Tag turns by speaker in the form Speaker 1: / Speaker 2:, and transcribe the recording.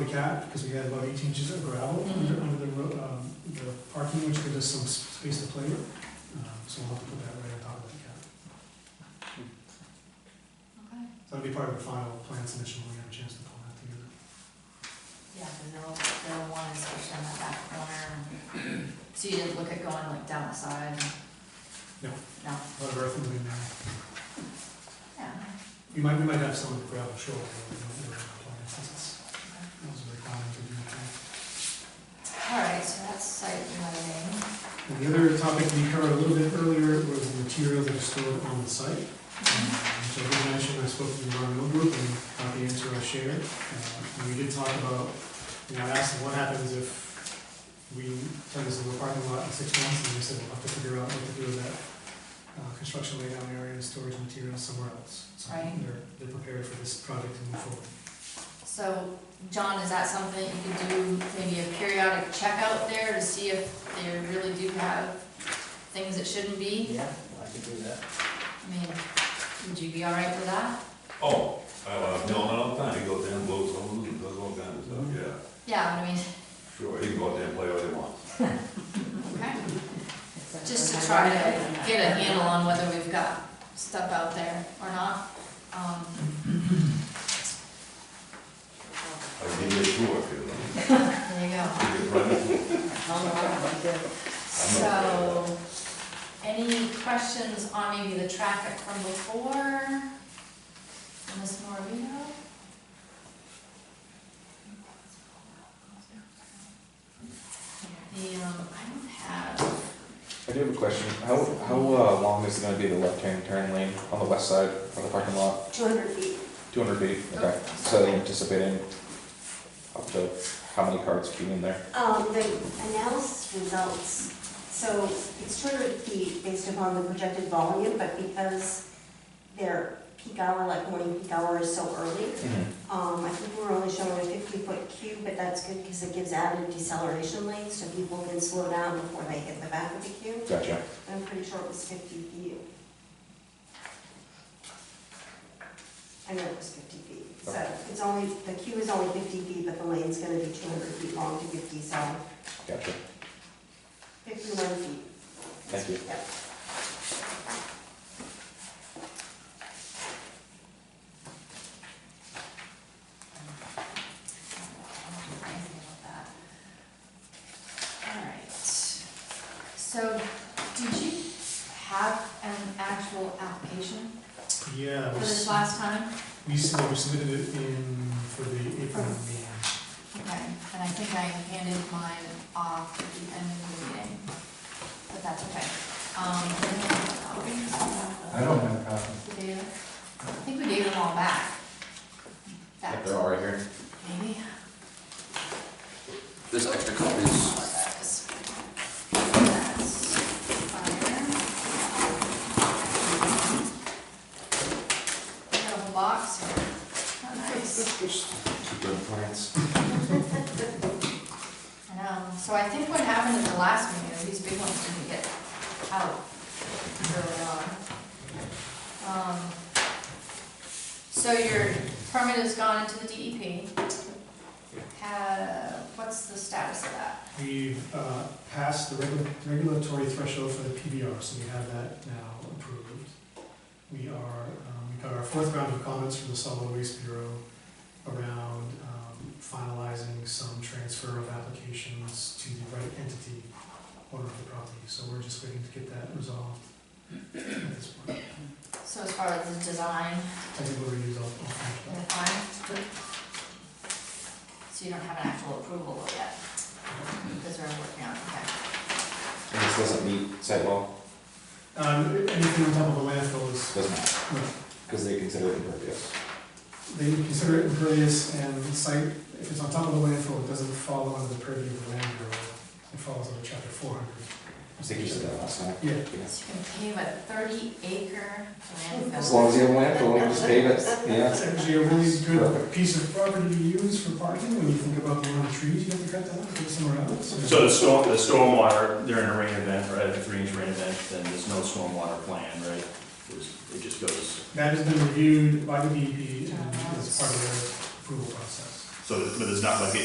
Speaker 1: We cat, because we had about eighteen inches of gravel under, under the, ro- um, the parking, which gives us some s- space to play with. Um, So we'll have to put that right on top of that cat.
Speaker 2: Okay,
Speaker 1: So that'll be part of the final plan submission when we have a chance to pull that together.
Speaker 2: yeah, because they'll, they'll want inspection on that back corner. So you didn't look at going like down the side?
Speaker 1: No. A
Speaker 2: No,
Speaker 1: lot of earth moving there.
Speaker 2: yeah.
Speaker 1: We might, we might have some gravel short, but we don't really have plans, since it's, those are the common to do.
Speaker 2: All right, so that's site lighting.
Speaker 1: And the other topic we covered a little bit earlier was the materials that are stored on the site. So I did mention, I spoke to the environmental group and got the answer I shared. Uh, And we did talk about, you know, I asked them what happens if we turn this into a parking lot in six months, and they said we'll have to figure out what to do with that uh, construction laydown area and storage materials somewhere else. So
Speaker 2: Right.
Speaker 1: they're, they're prepared for this project to move forward.
Speaker 2: So, John, is that something you could do, maybe a periodic checkout there to see if they really do have things that shouldn't be?
Speaker 3: Yeah, I could do that.
Speaker 2: I mean, would you be all right with that?
Speaker 4: Oh, uh, no, all the time, he goes down, and blows holes, and does all kinds of stuff, yeah,
Speaker 2: Yeah, I mean,
Speaker 4: sure, he can go out there and play all he wants.
Speaker 2: okay. Just to try to get a handle on whether we've got stuff out there or not. Um,
Speaker 4: I'll give you a tour if you like.
Speaker 2: There you go.
Speaker 4: Give you a private tour.
Speaker 2: So, any questions on maybe the traffic from before? Ms. Morino? The, um, I don't have,
Speaker 5: I do have a question. How, how uh, long is it gonna be the left-hand turn lane on the west side of the parking lot?
Speaker 6: Two hundred feet.
Speaker 5: Two hundred feet, okay. So they're anticipating up to how many cars being in there?
Speaker 6: Um, the analysis results, so it's two hundred feet based upon the projected volume, but because their peak hour, like morning peak hour is so early,
Speaker 3: Mm-hmm.
Speaker 6: um, I think we're only showing a fifty-foot queue, but that's good because it gives added deceleration lanes so people can slow down before they hit the back of the queue.
Speaker 5: Gotcha.
Speaker 6: I'm pretty sure it was fifty feet. I know it was fifty feet, so
Speaker 5: Okay.
Speaker 6: it's only, the queue is only fifty feet, but the lane's gonna be two hundred feet long to fifty, so
Speaker 5: Gotcha.
Speaker 6: fifty-one feet.
Speaker 5: Thank you.
Speaker 6: Yep.
Speaker 2: anything about that. Alright, so, did you have an actual application
Speaker 1: Yeah.
Speaker 2: for
Speaker 1: we
Speaker 2: this
Speaker 1: s-
Speaker 2: last time?
Speaker 1: We s- we submitted it in, for the April meeting.
Speaker 2: Okay, and I think I handed mine off at the end of the meeting, but that's okay. Um,
Speaker 3: I don't have a copy.
Speaker 2: we gave- I think we gave them all back.
Speaker 5: Yep,
Speaker 2: Back
Speaker 5: they're all right here.
Speaker 2: maybe,
Speaker 7: There's extra copies.
Speaker 2: what that is. That's fire. We got a whole box here. How nice.
Speaker 5: Good plans.
Speaker 2: I know, so I think what happened at the last meeting, is these big ones didn't get out early on. Um, So your permit has gone into the DEP. Uh, what's the status of that?
Speaker 1: We've uh, passed the regu- regulatory threshold for the PBR, so we have that now approved. We are, um, we got our fourth round of comments from the Solid Waste Bureau around um, finalizing some transfer of applications to the right entity owner of the property. So we're just waiting to get that resolved at this point.
Speaker 2: So as far as the design
Speaker 1: I think we'll reuse all all finished
Speaker 2: and the time? So you don't have an actual approval yet, because we're working on, it, okay.
Speaker 5: And this doesn't meet site law?
Speaker 1: up. Um, Anything on top of the landfill is
Speaker 5: Doesn't matter,
Speaker 1: no,
Speaker 5: because they consider it impervious.
Speaker 1: They consider it impervious and site, if it's on top of the landfill, it doesn't fall under the purview of the land bureau. It falls under chapter four hundred.
Speaker 5: I think you said that last night.
Speaker 1: Yeah.
Speaker 2: So you can pave a thirty acre landfill.
Speaker 5: As long as you have landfill, you just pave it, yeah.
Speaker 1: That's actually a really good piece of property to use for parking, when you think about the amount of trees you have to cut down, put somewhere else.
Speaker 8: So the storm, the stormwater, during a rain event, right, a three inch rain event, then there's no stormwater plan, right? It's- It just goes,
Speaker 1: E That has been reviewed by the DEP and is part of their approval process.
Speaker 8: So, but there's not like a